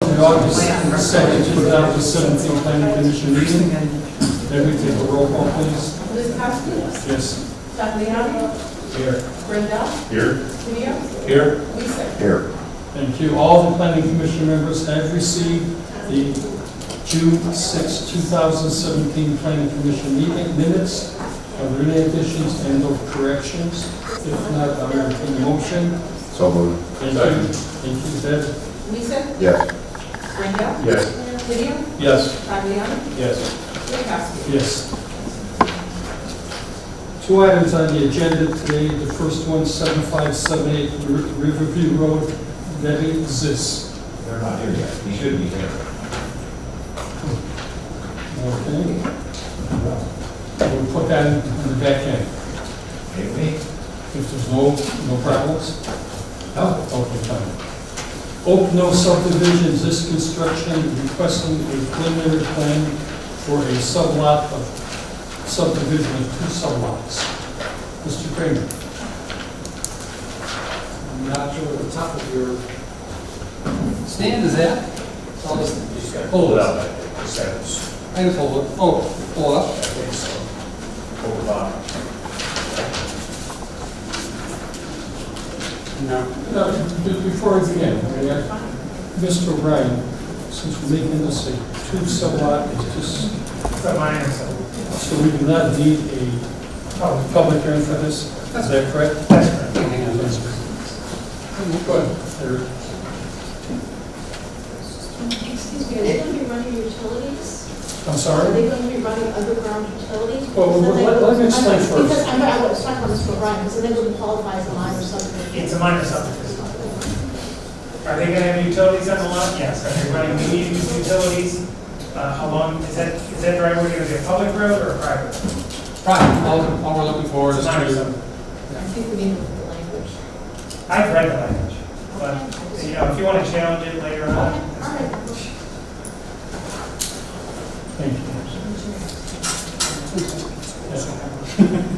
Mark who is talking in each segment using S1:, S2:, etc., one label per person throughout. S1: August second, two thousand seventeen planning commission meeting. Then we take a roll call, please.
S2: Liz Cosby,
S1: Yes.
S2: Tatiana,
S1: Here.
S2: Brenda,
S1: Here.
S2: Leo,
S1: Here.
S2: Lisa.
S3: Here.
S1: Thank you. All the planning commission members have received the June sixth, two thousand seventeen planning commission meeting minutes. Are there any additions and or corrections? If not, I'll entertain a motion.
S3: So moved.
S1: Thank you. Thank you, Ted.
S2: Lisa,
S3: Yes.
S2: Brenda,
S3: Yes.
S2: Leo,
S1: Yes.
S2: Tatiana,
S1: Yes.
S2: Liz Cosby.
S1: Yes. Two items on the agenda today. The first one, 7578 Ri- Riverview Road, that exists.
S4: They're not here yet. He should be here.
S1: Okay? We'll put that in the back end.
S4: Maybe?
S1: If there's no, no problems,
S4: No.
S1: open time. Oak No subdivision, this construction requesting a preliminary plan for a sublot of subdivision of two sublots. Mr. Kramer?
S5: I'm not sure what the top of your stand is at. So I'll just,
S4: Just gotta pull it out like that. Just have it
S5: I can hold it, oh, pull up.
S4: pull it out.
S5: No.
S1: No, Uh, be- Before I begin, may I- Mr. Ryan, since we're making this a two sublot, it's just,
S4: It's not my answer.
S1: so we do not need a public hearing for this, is that correct?
S5: Hang on, let's-
S1: Go ahead. There-
S6: Excuse me, are they going to be running utilities?
S1: I'm
S6: Are
S1: sorry?
S6: they going to be running underground utilities?
S1: Well,
S6: Because then
S1: let-
S6: they
S1: let- let me
S6: wouldn't-
S1: explain first.
S6: Because I'm, I was talking about this for Brian, because then they wouldn't qualify as a line or something.
S7: It's a minor subdivision. Are they gonna have utilities on the lot? Yes. Are they running mediums utilities? Uh, how long, is that, is that driveway gonna be a public road or a private? road?
S5: Right, all, all we're looking for is
S7: It's a minor
S5: to,
S7: subdivision.
S6: I think we need the language.
S7: I've read the language, but, you know, if you wanna challenge it later
S6: All
S7: on. that's fine.
S6: right.
S1: Thank you.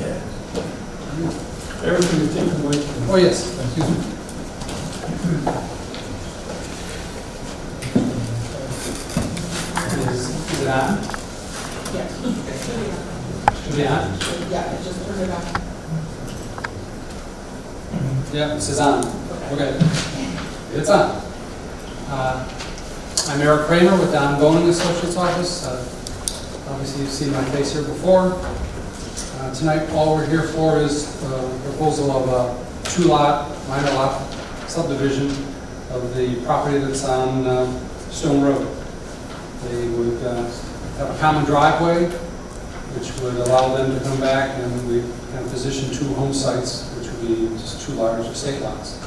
S1: Yes. Everything you take away from
S5: oh, yes, excuse me. Is, is it on?
S2: Yes.
S5: Should be on?
S2: Yeah, just turn it off.
S5: Yeah, this is on. Okay. It's on. Uh, I'm Eric Kramer with Don Boning Associates Office. Uh, Obviously, you've seen my face here before. Uh, Tonight, all we're here for is uh, proposal of a two-lot, minor lot subdivision of the property that's on uh, Stone Road. They would uh, have a common driveway, which would allow them to come back and we kind of position two home sites, which would be just two large estate lots.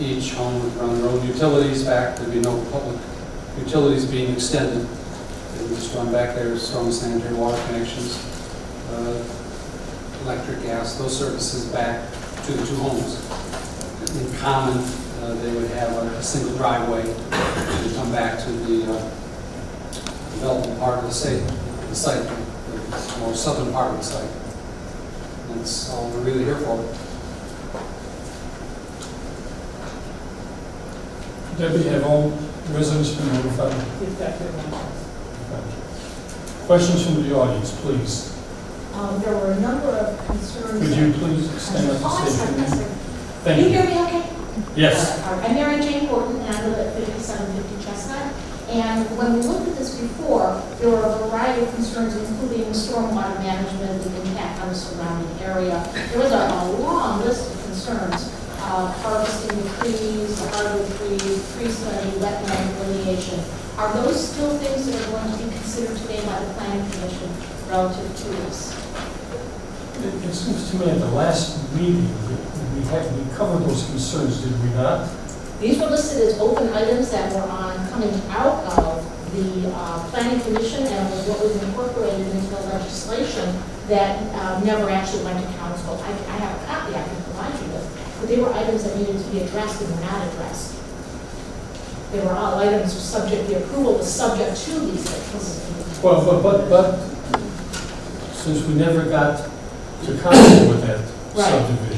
S5: Each home would run their own utilities back, there'd be no public utilities being extended. They would just run back their storm sanitary water connections, uh, electric, gas, those services back to the two homes. In common, uh, they would have a single driveway to come back to the uh, development part of the state, the site, the more southern part of the site. That's all we're really here for.
S1: Debbie, have all residents been notified?
S2: Please, Dr. Lynch.
S1: Questions from the audience, please.
S6: Um, there were a number of concerns.
S1: Could you please stand up
S6: Oh, I'm
S1: and
S6: sorry,
S1: state your
S6: I'm
S1: name?
S6: sorry. Can you
S1: Thank you.
S6: hear me okay?
S1: Yes.
S6: Uh, I'm Mary Jane Gordon, and I live at 5750 Chestnut. And when we looked at this before, there were a variety of concerns, including stormwater management, the impact on the surrounding area. There was a a long list of concerns, uh, harvesting the trees, the hardwood trees, tree study, wetland delineation. Are those still things that are going to be considered today by the planning commission relative to this?
S1: It it seems to me at the last meeting, that we had, we covered those concerns, did we not?
S6: These were listed as open items that were on, coming out of the uh, planning commission and was what was incorporated into the legislation that uh, never actually went to council. I I have a copy I can provide you with, but they were items that needed to be addressed and were not addressed. They were all items subject, the approval was subject to these things.
S1: Well, but, but, but, since we never got to council with that
S6: Right.
S1: subdivision.